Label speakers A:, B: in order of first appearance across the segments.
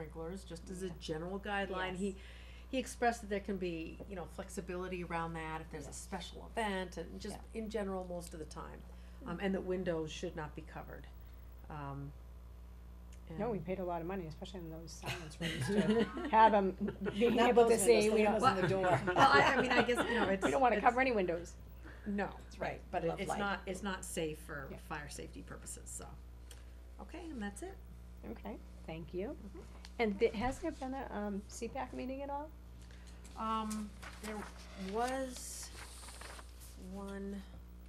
A: sprinklers, just as a general guideline, he, he expressed that there can be, you know, flexibility around that, if there's a
B: Yes.
A: special event, and just in general, most of the time. Um, and that windows should not be covered, um.
C: No, we
A: and-
C: paid a lot of money, especially in those silence rooms, to have them being
B: Not
C: able
B: with
C: to
B: this
C: say,
B: windows,
C: we
B: the
C: don't,
B: windows in the door.
A: Well, I, I mean, I guess, you know, it's.
C: we don't wanna
A: it's-
C: cover any windows.
A: No, right,
B: right,
A: but it-
B: love
A: it's
B: light.
A: not, it's not safe for
C: Yeah.
A: fire safety purposes, so. Okay, and that's it.
C: Okay, thank you.
A: Mm-hmm.
C: And thi- has there been a, um, CPAC meeting at all?
A: Um, there was one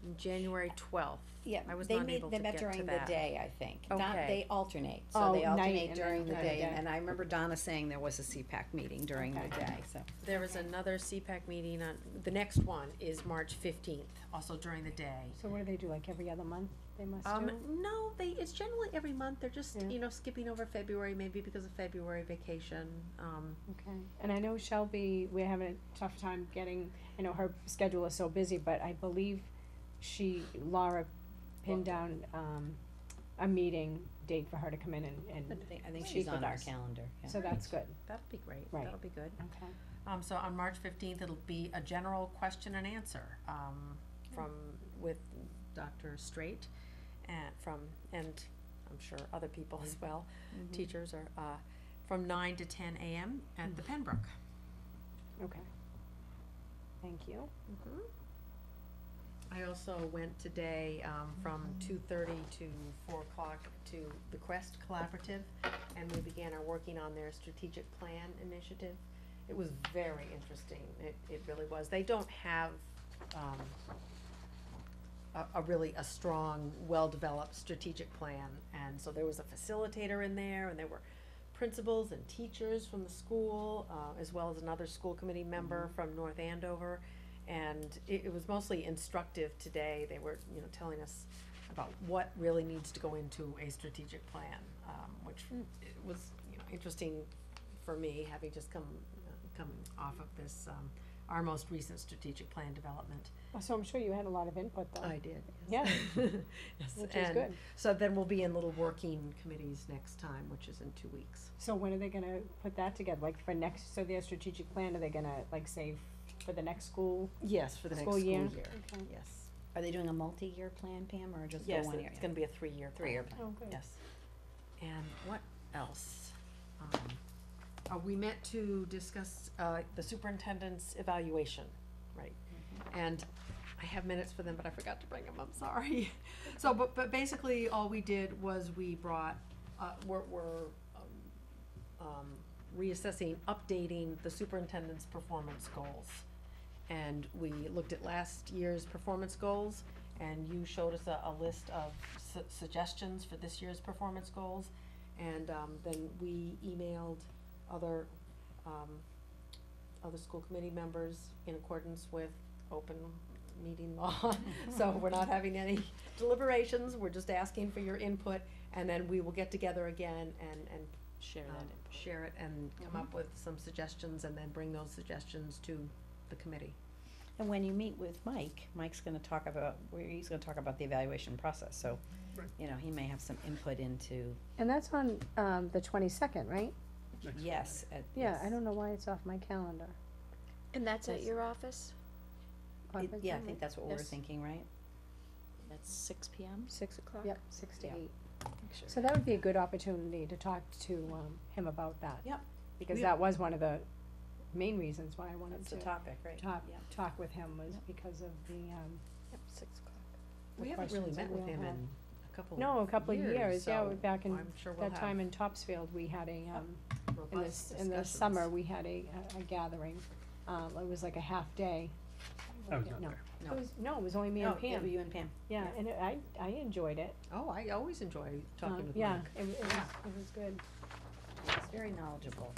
A: on January twelfth.
B: Yeah,
A: I was
B: they
A: not
B: meet,
A: able
B: they
A: to
B: met
A: get to
B: during the
A: that.
B: day, I think. Not,
A: Okay.
B: they alternate, so
C: Oh,
B: they
C: night
B: alternate
C: and
B: during
C: then during
B: the
C: the
B: day, and,
C: day.
B: and I remember Donna saying there was a CPAC meeting during the
C: Okay.
B: day, so.
A: There was another CPAC meeting on, the next one is March fifteenth, also during the day.
C: So what do they do, like every other month they must
A: Um,
C: do?
A: no, they, it's generally every month, they're just,
C: Yeah.
A: you know, skipping over February, maybe because of February vacation, um,
C: Okay, and I know Shelby, we're having a tough time getting, I know her schedule is so busy, but I believe she, Laura pinned down, um, a meeting date for her to come in and,
B: I
C: and,
B: think- I think
C: She's
B: she's on our
C: with us.
B: calendar, yeah.
C: so that's good,
A: that'll be great,
C: Right.
A: that'll be good.
C: okay.
A: Um, so on March fifteenth, it'll be a general question and answer, um, from, with Dr. Straight and from, and I'm sure other people as well, teachers are, uh, from nine to ten AM at the Penbrook.
C: Okay. Thank you.
A: I also went today, um, from two thirty to four o'clock to the Quest Collaborative, and we began our working on their strategic plan initiative. It was very interesting, it, it really was, they don't have, um, a, a really, a strong, well-developed strategic plan, and so there was a facilitator in there, and there were principals and teachers from the school, uh, as well as another school committee member from North Andover, and it, it was mostly instructive today, they were, you know, telling us about what really needs to go into a strategic plan, um, which it was, you know, interesting for me, having just come, uh, coming off of this, um, our most recent strategic plan development.
C: Well, So I'm sure you had a lot of input though,
A: I did.
C: yes.
A: Yes,
C: which is
A: and
C: good.
A: so then we'll be in little working committees next time, which is in two weeks.
C: So when are they gonna put that together, like for next, so their strategic plan, are they gonna like save for the next school?
A: Yes, for
C: the next School school year? year. Okay.
A: Yes.
B: Are they doing a multi-year plan, Pam, or just the
A: Yes,
B: one year?
A: it's gonna be a three-year plan.
B: Three-year plan.
C: Oh, good.
A: Yes. And what else? Um, uh, we met to discuss, uh, the superintendent's evaluation, right? And I have minutes for them, but I forgot to bring them, I'm sorry. So, but, but basically, all we did was we brought, uh, we're, we're, um, um, reassessing, updating the superintendent's performance goals. And we looked at last year's performance goals, and you showed us a, a list of su- suggestions for this year's performance goals. And, um, then we emailed other, um, other school committee members in accordance with open meeting law. So we're not having any deliberations, we're just asking for your input, and then we will get together again and, and
C: Share
A: um, share it and come up with some suggestions and then bring those suggestions to the committee.
B: And when you meet with Mike, Mike's gonna talk about, where he's gonna talk about the evaluation process, so, you know, he may have some input into,
C: And that's on, um, the twenty-second, right?
B: yes, at.
C: Yeah,
B: yes.
C: I don't know why it's off my calendar.
D: And that's at
B: That's-
D: your office?
B: It-
C: Conference
B: Yeah, I
C: room?
B: think that's what we were
D: Yes.
B: thinking, right?
D: That's six P M, six o'clock?
C: Yep, six to
B: Yeah.
C: eight. So that would be a good opportunity to talk to, um, him about that.
A: Yep.
C: Because
A: We-
C: that was one of the main reasons why I wanted
B: That's the
C: to
B: topic, right?
C: talk,
B: Yeah.
C: talk with him was
B: Yep.
C: because of the, um,
D: Yep, six o'clock.
C: the
A: We haven't really
C: questions
A: met
C: that
A: with
C: we'll
A: him
C: have.
A: in a couple of years.
C: No, a couple of years, yeah, we're back in
A: so I'm sure we'll
C: that time
A: have
C: in Topsfield, we had a, um, in the,
A: robust
C: s- in the
A: discussions.
C: summer, we had a, a- a gathering, um, it was like a half day.
E: I was not
C: No.
E: there.
B: No.
C: It was, no, it was only me and
B: Oh, it was
C: Pam,
B: you and Pam.
C: yeah, and it- I, I enjoyed it,
A: Oh, I always enjoy talking
C: Um,
A: with
C: yeah,
A: Mike.
C: it, w- it was,
A: Yeah.
C: it was good.
B: He's very knowledgeable.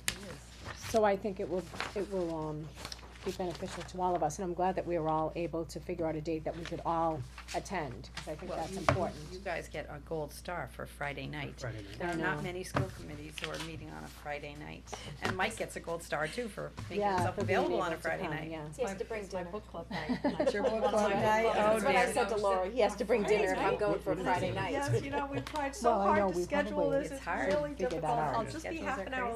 C: So I think it will, it will, um, be beneficial to all of us, and I'm glad that we were all able to figure out a date that we could all attend, cause I think
B: Well,
C: that's
B: you-
C: important.
B: You guys get a gold star for Friday night.
E: Friday night.
B: There are
C: know.
B: not many school committees who are meeting on a Friday night. And Mike gets a gold star too for making
C: Yeah,
B: himself
C: for being
B: available
C: able
B: on a
C: to
B: Friday
C: come,
B: night.
C: yeah.
D: He has to bring
A: It's my
D: dinner.
A: book club night. Not sure
B: Your
A: what
B: book
A: my
B: club night?
A: is.
B: Oh,
D: That's what I
B: dear.
D: said to Laura, he has to bring dinner if I'm
A: Friday
D: going for a
E: night?
D: Friday night.
A: Yes, you know, we've tried so
C: Well, I know,
A: hard to
C: we
A: schedule
C: probably-
A: this,
B: It's
A: it's
B: hard to
A: really
C: figure that
A: difficult,
C: out.
A: I'll just be
B: Schedules are
A: half an hour
B: crazy.